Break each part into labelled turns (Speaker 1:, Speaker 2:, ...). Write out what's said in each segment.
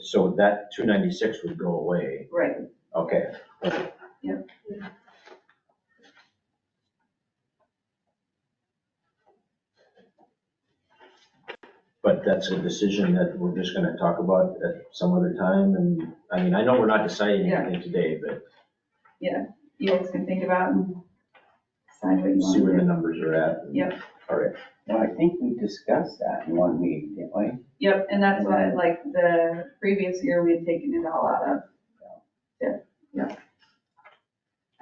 Speaker 1: so that two ninety-six would go away,
Speaker 2: Right,
Speaker 1: okay. But that's a decision that we're just gonna talk about at some other time, and, I mean, I know we're not deciding
Speaker 2: Yeah.
Speaker 1: anything today, but
Speaker 2: you guys can think about and decide what you
Speaker 1: see where the
Speaker 2: want.
Speaker 1: numbers are at. and-
Speaker 2: Yep.
Speaker 1: All right,
Speaker 3: No, I think we discussed that in one meeting, didn't we?
Speaker 2: Yep, and that's why, like, the previous year, we had taken it all out of. Yeah, yeah.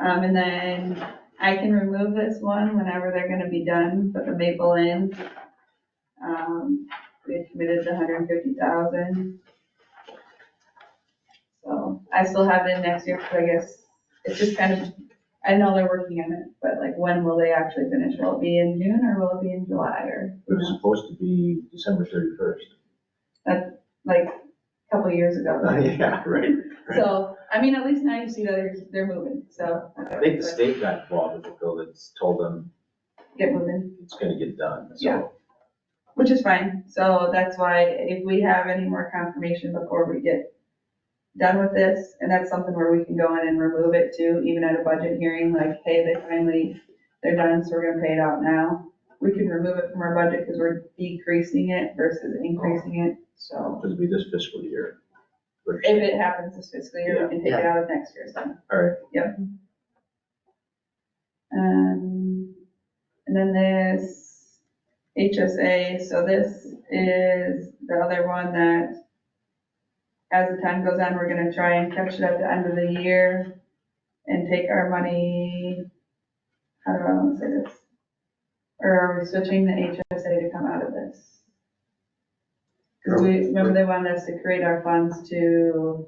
Speaker 2: Um, and then I can remove this one whenever they're gonna be done, but the Maple Inn, um, we had committed the hundred and fifty thousand. So I still have it in next year, because I guess, it's just kind of, I know they're working on it, but like, when will they actually finish? Will it be in June, or will it be in July, or?
Speaker 1: it was supposed to be December thirty-first.
Speaker 2: like a couple years ago.
Speaker 1: Uh, Yeah, right.
Speaker 2: So, I mean, at least now you see that they're, they're moving, so.
Speaker 1: I think the state got involved with the bill, it's told them
Speaker 2: Get moving,
Speaker 1: it's gonna get done,
Speaker 2: Yeah.
Speaker 1: so.
Speaker 2: which is fine. So that's why if we have any more confirmation before we get done with this, and that's something where we can go in and remove it too, even at a budget hearing, like, hey, they finally, they're done, so we're gonna pay it out now. We can remove it from our budget because we're decreasing it versus increasing it, so.
Speaker 1: It'll be this fiscal year. Which-
Speaker 2: If it happens this fiscal year, we can take it out of next year's then.
Speaker 1: All right.
Speaker 2: Yep. Um, and then this HSA, so this is the other one that as the time goes on, we're gonna try and catch it at the end of the year and take our money, how do I wanna say this? Or are we switching the HSA to come out of this? Cause we, remember they wanted us to create our funds to,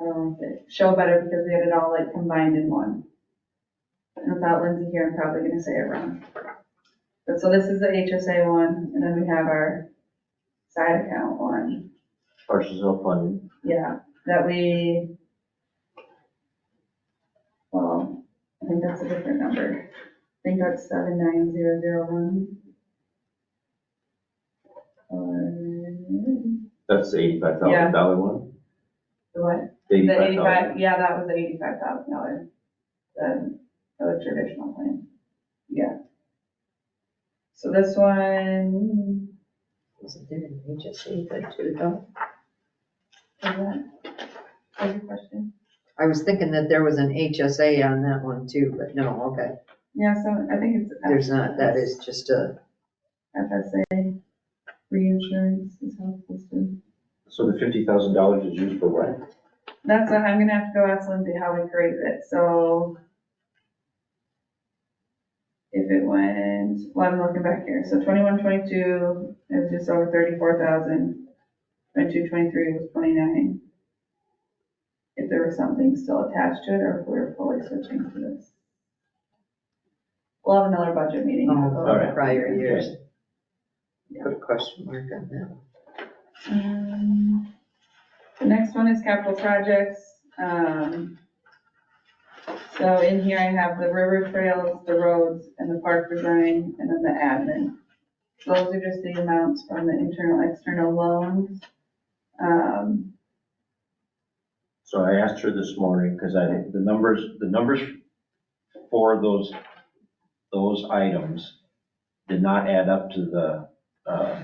Speaker 2: um, show better because we had it all like combined in one. And without Lindsay here, I'm probably gonna say it wrong. But so this is the HSA one, and then we have our side account one,
Speaker 1: Partial self-funding,
Speaker 2: yeah, that we, well, I think that's a different number. I think that's seven nine zero zero one. Or,
Speaker 1: that's the eighty-five thousand dollar one?
Speaker 2: the what? The eighty-five, yeah, that was the eighty-five thousand dollar, the, the traditional plan, yeah. So this one,
Speaker 4: Wasn't there an HSA that too, though?
Speaker 2: is that, is your question?
Speaker 4: I was thinking that there was an HSA on that one too, but no, okay,
Speaker 2: Yeah, so I think it's.
Speaker 4: there's not, that is just a,
Speaker 2: FSA reinsurance is how it's listed.
Speaker 1: So the fifty thousand dollars is used for what?
Speaker 2: That's what, I'm gonna have to go ask Lindsay how we created it, so. If it went, well, I'm looking back here, so twenty-one, twenty-two, it was just over thirty-four thousand. Twenty-two, twenty-three was twenty-nine. If there was something still attached to it, or if we were fully switching to this. We'll have another budget meeting.
Speaker 4: oh,
Speaker 1: Alright.
Speaker 4: prior years.
Speaker 2: Yeah.
Speaker 4: Put a question mark on that. one.
Speaker 2: Um, The next one is capital projects. Um, So in here I have the river trails, the roads, and the park design, and then the admin. Those are just the amounts from the internal, external loans. Um,
Speaker 1: So I asked her this morning, because I, the numbers, the numbers for those, those items did not add up to the, uh,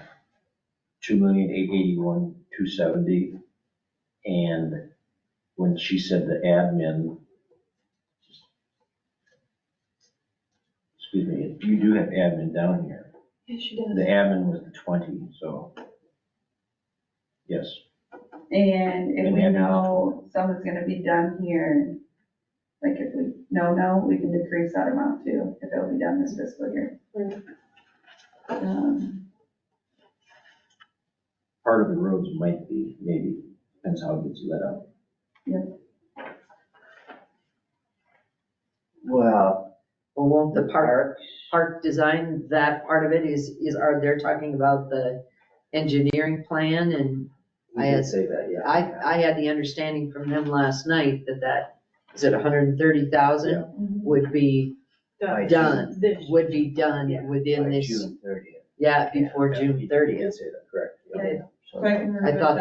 Speaker 1: two million, eight eighty-one, two seventy. And when she said the admin, excuse me, you do have admin down here.
Speaker 4: Yeah, she
Speaker 1: The admin was the twenty, so. Yes,
Speaker 2: And if
Speaker 1: And
Speaker 2: we
Speaker 1: admin.
Speaker 2: know something's gonna be done here, like if we, no, no, we can decrease that amount too, if it'll be done this fiscal year.
Speaker 4: Right.
Speaker 2: Um,
Speaker 1: part of the roads might be, maybe, depends how it gets let out.
Speaker 3: Well,
Speaker 4: Well, won't the park, park design, that part of it is, is, are they talking about the engineering plan and I had-
Speaker 3: say that, yeah.
Speaker 4: I, I had the understanding from them last night that that, is it hundred and thirty
Speaker 1: Yeah.
Speaker 4: thousand would be,
Speaker 3: By June-
Speaker 4: done,
Speaker 5: This-
Speaker 4: would be done
Speaker 3: by
Speaker 4: within this,
Speaker 3: June thirtieth.
Speaker 4: yeah, before June thirtieth.
Speaker 3: Say that, correct. yeah.
Speaker 2: Yeah.
Speaker 3: So-
Speaker 2: So I can remove
Speaker 4: I thought